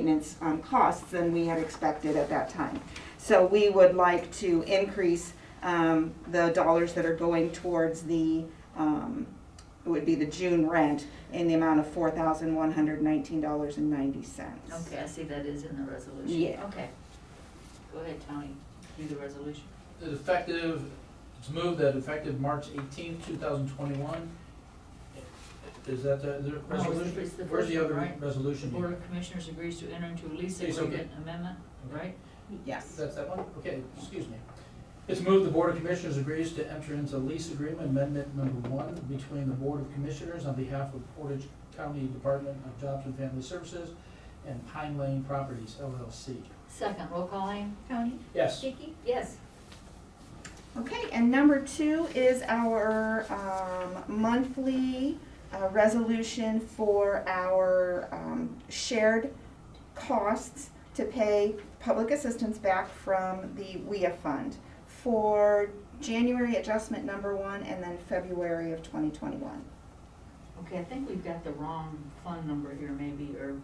maintenance um, costs than we had expected at that time. So we would like to increase um, the dollars that are going towards the, um, it would be the June rent in the amount of four thousand one hundred nineteen dollars and ninety cents. Okay, I see that is in the resolution. Yeah. Okay. Go ahead, Tony, do the resolution. that effective, it's moved that effective March eighteenth, two thousand twenty-one. Is that the, the it's the- resolution? it's the Where's the first one, other right? resolution? The here? Board of Commissioners agrees to enter into a lease Yes, okay. agreement amendment, right? Yes. That's that one? Okay, excuse me. It's moved the Board of Commissioners agrees to enter into lease agreement amendment number one between the Board of Commissioners on behalf of Portage County Department of Jobs and Family Services and Pine Lane Properties LLC. Second, roll call aim? Tony? Yes. Vicky? Yes. Okay, and number two is our um, monthly uh, resolution for our um, shared costs to pay public assistance back from the WIA fund for January adjustment number one and then February of 2021. Okay, I think we've got the wrong fund number here maybe, or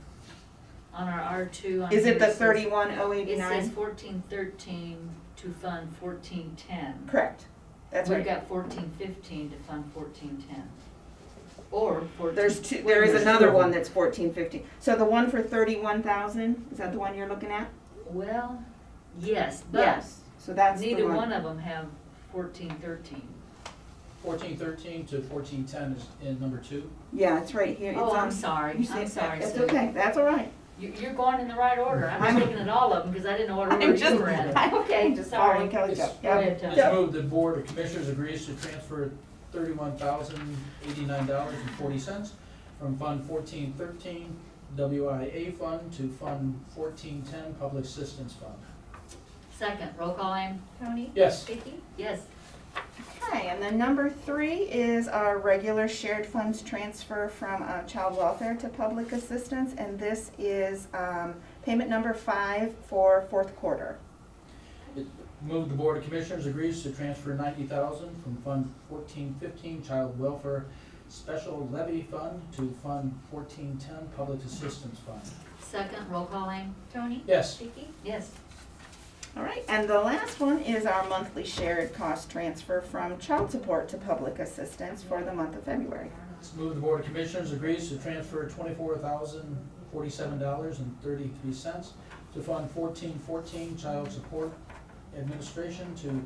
on our R two. Is it the It says 31089? fourteen thirteen to fund fourteen ten. Correct. That's We've right. got fourteen fifteen to fund fourteen ten. Or fourteen. There's two, there is There's another two. one that's 1450. So the one for 31,000, is that the one you're looking at? Well, yes, but Yes. So that's the neither one of them have fourteen thirteen. Fourteen thirteen to fourteen ten is in number two. Yeah, it's right here. It's Oh, I'm on- sorry, you I'm said- sorry. It's Sue. okay, that's all right. You- You're going in the right order. I'm I'm- just looking at all of them because I didn't know what I'm order just, you were in. I'm Okay, just sorry. following Kelly's It's- up. Go ahead, Tony. It's moved the Board of Commissioners agrees to transfer thirty-one thousand eighty-nine dollars and forty cents from Fund fourteen thirteen WIA Fund to Fund fourteen ten Public Assistance Fund. Second, roll call aim? Tony? Yes, Vicky? Yes. Okay, and then number three is our regular shared funds transfer from uh, child welfare to public assistance. And this is um, payment number five for fourth quarter. moved the Board of Commissioners agrees to transfer ninety thousand from Fund fourteen fifteen Child Welfare Special Levy Fund to Fund fourteen ten Public Assistance Fund. Second, roll call aim? Tony? Yes, Vicky? Yes. All right, and the last one is our monthly shared cost transfer from child support to public assistance for the month of February. It's moved the Board of Commissioners agrees to transfer twenty-four thousand forty-seven dollars and thirty-three cents to Fund fourteen fourteen Child Support Administration to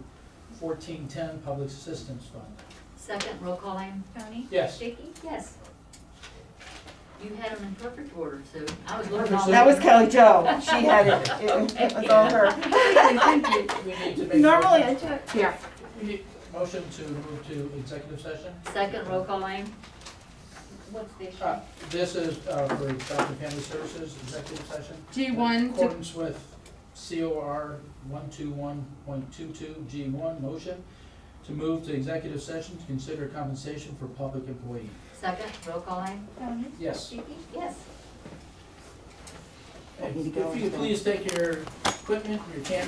fourteen ten Public Assistance Fund. Second, roll call aim? Tony? Yes. Vicky? Yes. You had them in perfect order, Sue. I was looking Perfect, all. Sue. That was Kelly Jo. She had it. It was all her. We need to make. Normally I check. Yeah. We need- Motion to move to executive session. Second, roll call aim? What's the issue? Uh, This is, uh, for Child and Family Services, executive session. G one In to, accordance with COR 121.22 G1, motion to move to executive session to consider compensation for public employee. Second, roll call aim? Yes. Yes. I need to If go you could into- please take your equipment, your camera.